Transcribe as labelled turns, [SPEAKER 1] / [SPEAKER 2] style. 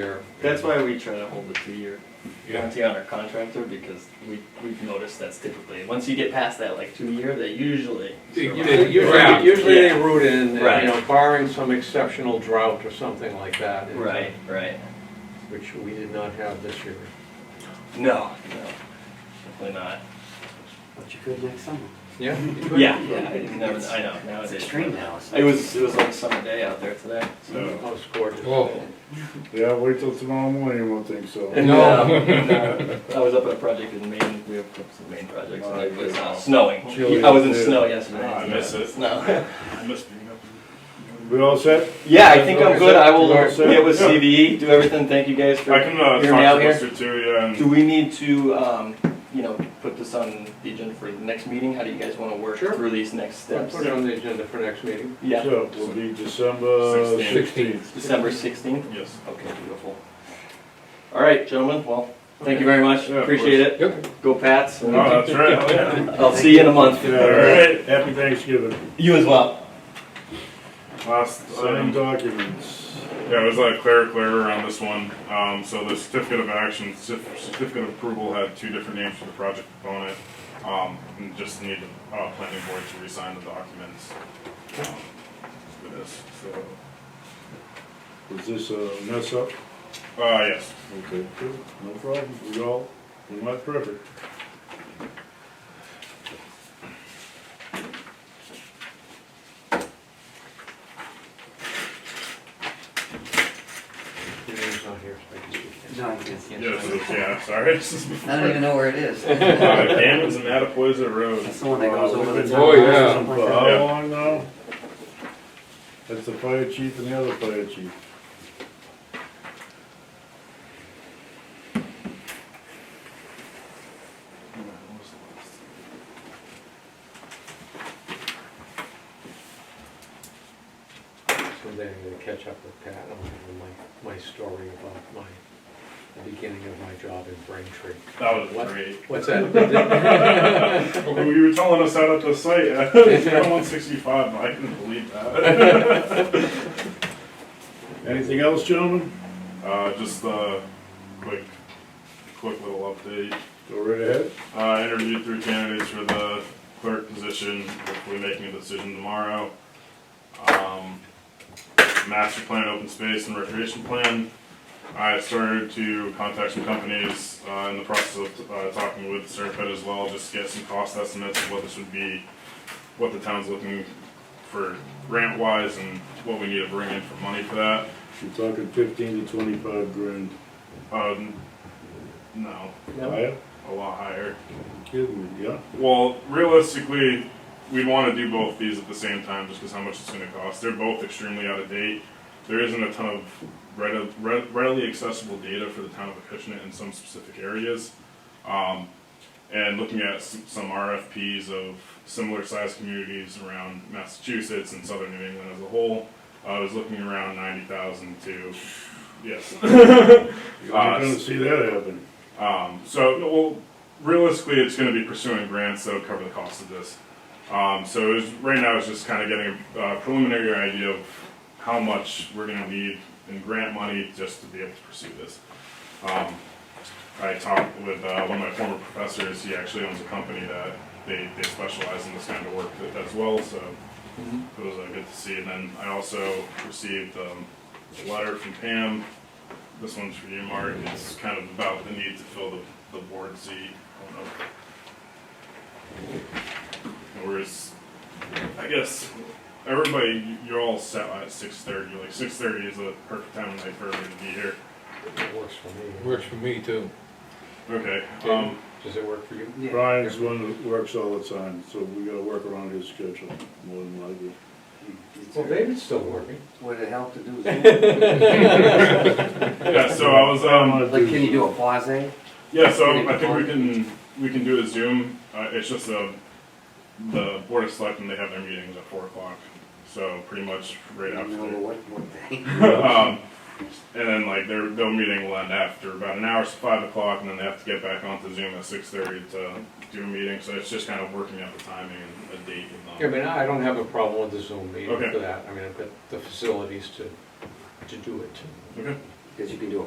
[SPEAKER 1] year.
[SPEAKER 2] That's why we try to hold the two-year
[SPEAKER 1] Yeah,
[SPEAKER 2] warranty on our contractor, because we, we've noticed that's typically, once you get past that, like, two-year, they usually.
[SPEAKER 1] They-
[SPEAKER 2] survive.
[SPEAKER 3] Usually, usually they
[SPEAKER 2] Yeah.
[SPEAKER 3] root in, you
[SPEAKER 2] Right.
[SPEAKER 3] know, barring some exceptional drought or something like that. and, uh,
[SPEAKER 2] Right, right.
[SPEAKER 3] Which we did not have this year.
[SPEAKER 2] No, no, definitely not.
[SPEAKER 4] But you could next summer.
[SPEAKER 3] Yeah?
[SPEAKER 2] Yeah, yeah, I didn't know- I know,
[SPEAKER 4] It's
[SPEAKER 2] nowadays.
[SPEAKER 4] extreme now. so-
[SPEAKER 2] It was, it was like summer day out there today, so.
[SPEAKER 3] Oh, it's gorgeous.
[SPEAKER 5] Oh.
[SPEAKER 6] Yeah, wait till tomorrow morning, you won't think so.
[SPEAKER 2] And,
[SPEAKER 5] No.
[SPEAKER 2] um, and, uh, I was up at a project in Maine, we have some Maine projects, and it was uh, snowing.
[SPEAKER 6] Chilly
[SPEAKER 2] I was in
[SPEAKER 6] as hell.
[SPEAKER 2] snow yesterday.
[SPEAKER 5] Oh, I miss it.
[SPEAKER 2] No.
[SPEAKER 5] I miss being up.
[SPEAKER 6] We all set?
[SPEAKER 2] Yeah, I think I'm good, I will
[SPEAKER 6] Yeah.
[SPEAKER 2] get with CVE, E, do everything, thank you guys for
[SPEAKER 5] I can uh, talk
[SPEAKER 2] hearing me out
[SPEAKER 5] to
[SPEAKER 2] here.
[SPEAKER 5] Mr. Turia
[SPEAKER 2] Do
[SPEAKER 5] and
[SPEAKER 2] we need to, um, you know, put this on the agenda for the next meeting? How do you guys wanna work
[SPEAKER 3] Sure.
[SPEAKER 2] through these next
[SPEAKER 3] I'll
[SPEAKER 2] steps?
[SPEAKER 3] put it on the agenda for next meeting.
[SPEAKER 2] Yeah,
[SPEAKER 6] So, it will be December
[SPEAKER 5] Sixteenth.
[SPEAKER 6] sixteenth.
[SPEAKER 2] December sixteenth?
[SPEAKER 5] yes.
[SPEAKER 2] Okay, beautiful. All right, gentlemen, well, thank you very much,
[SPEAKER 5] Yeah, of
[SPEAKER 2] appreciate it.
[SPEAKER 5] Yep.
[SPEAKER 2] Go Pats,
[SPEAKER 5] Oh,
[SPEAKER 2] and
[SPEAKER 5] that's right. Oh, yeah.
[SPEAKER 2] I'll see you in a month.
[SPEAKER 6] Yeah, all right, happy Thanksgiving.
[SPEAKER 2] You as well.
[SPEAKER 5] Last
[SPEAKER 6] Sign
[SPEAKER 5] item.
[SPEAKER 6] documents.
[SPEAKER 5] Yeah, it was uh, a clerical error on this one. Um, so the certificate of action, certif- certificate of approval had two different names for the project component. Um, and just need the uh, planning board to resign the documents um, for this. So,
[SPEAKER 6] Was this a mess up?
[SPEAKER 5] uh, yes.
[SPEAKER 6] Okay, cool, no problem, we all, we're not perfect.
[SPEAKER 3] Your name's not here, so I can speak.
[SPEAKER 4] No, I can't see
[SPEAKER 5] Yes.
[SPEAKER 4] it.
[SPEAKER 5] Yeah. Sorry. This is
[SPEAKER 4] I don't even know where it is.
[SPEAKER 5] uh, Gammons and Mattapoisa Road.
[SPEAKER 4] That's the one that goes over the town.
[SPEAKER 6] Oh,
[SPEAKER 4] hall or
[SPEAKER 5] yeah.
[SPEAKER 4] something
[SPEAKER 6] For
[SPEAKER 4] like that.
[SPEAKER 6] how long now? That's the fire chief and the other fire chief.
[SPEAKER 3] Someday I'm gonna catch up with Pat on my, my story about my, the beginning of my job in Braintree.
[SPEAKER 5] That was
[SPEAKER 3] What?
[SPEAKER 5] great.
[SPEAKER 3] What's that?
[SPEAKER 5] You were telling us out at the site, I was down on 65, and I couldn't believe that.
[SPEAKER 6] Anything else, gentlemen?
[SPEAKER 5] Uh, just a quick, quick little update.
[SPEAKER 6] Go right ahead.
[SPEAKER 5] Uh, I interviewed three candidates for the clerk position, hopefully making a decision tomorrow. Um, master plan, open space, and recreation plan. I started to contact some companies, uh, in the process of, uh, talking with Serpent as well, just to get some cost estimates of what this would be, what the town's looking for grant wise and what we need to bring in for money for that.
[SPEAKER 6] You're talking fifteen to twenty-five grand.
[SPEAKER 5] Um, no,
[SPEAKER 6] Higher?
[SPEAKER 5] a lot higher.
[SPEAKER 6] Kidding me, yeah?
[SPEAKER 5] Well, realistically, we'd want to do both these at the same time just because how much it's going to cost. They're both extremely out of date. There isn't a ton of readi- re- readily accessible data for the town of Acushnet in some specific areas. Um, and looking at s- some RFPs of similar sized communities around Massachusetts and southern New England as a whole, uh, I was looking around 90,000 to, yes,
[SPEAKER 6] You're not gonna see that happen.
[SPEAKER 5] Um, so, well, realistically, it's going to be pursuing grants that would cover the cost of this. Um, so, it was, right now, it's just kind of getting a uh, preliminary idea of how much we're going to need in grant money just to be able to pursue this. Um, I talked with uh, one of my former professors. He actually owns a company that they, they specialize in this kind of work as well. So it was uh, good to see. And then I also received um, a letter from Pam this one's for you, Mark. It's kind of about the need to fill the, the board seat. I don't know. Whereas, I guess, everybody, you're all set at six thirty. Like, six thirty is a perfect time of night for everybody to be here.
[SPEAKER 3] Works for me.
[SPEAKER 5] Works for me, too. Okay,
[SPEAKER 3] Okay.
[SPEAKER 5] um,
[SPEAKER 3] Does it work for you?
[SPEAKER 4] Yeah.
[SPEAKER 6] Brian's one that works all the time, so we gotta work around his schedule more than likely.
[SPEAKER 3] Well, David's still working.
[SPEAKER 4] Would it help to do Zoom?
[SPEAKER 5] yeah, so I was, um,
[SPEAKER 4] Like, can you do a pause?
[SPEAKER 5] Yeah, so
[SPEAKER 4] Pretty
[SPEAKER 5] I think we
[SPEAKER 4] fun.
[SPEAKER 5] can, we can do a Zoom, uh, it's just a, the Board of Selectmen, they have their meetings at four o'clock, so pretty much right after.
[SPEAKER 4] What, what day?
[SPEAKER 5] Um, and then like their, their meeting will end after about an hour, so five o'clock, and then they have to get back onto Zoom at six thirty to do a meeting, so it's just kind of working out the timing and a date
[SPEAKER 3] Yeah, I
[SPEAKER 5] and all.
[SPEAKER 3] mean, I don't have a problem with the Zoom meeting
[SPEAKER 5] Okay.
[SPEAKER 3] for that. I mean, I've got the facilities to, to do it.
[SPEAKER 5] Okay.
[SPEAKER 4] Because you can do a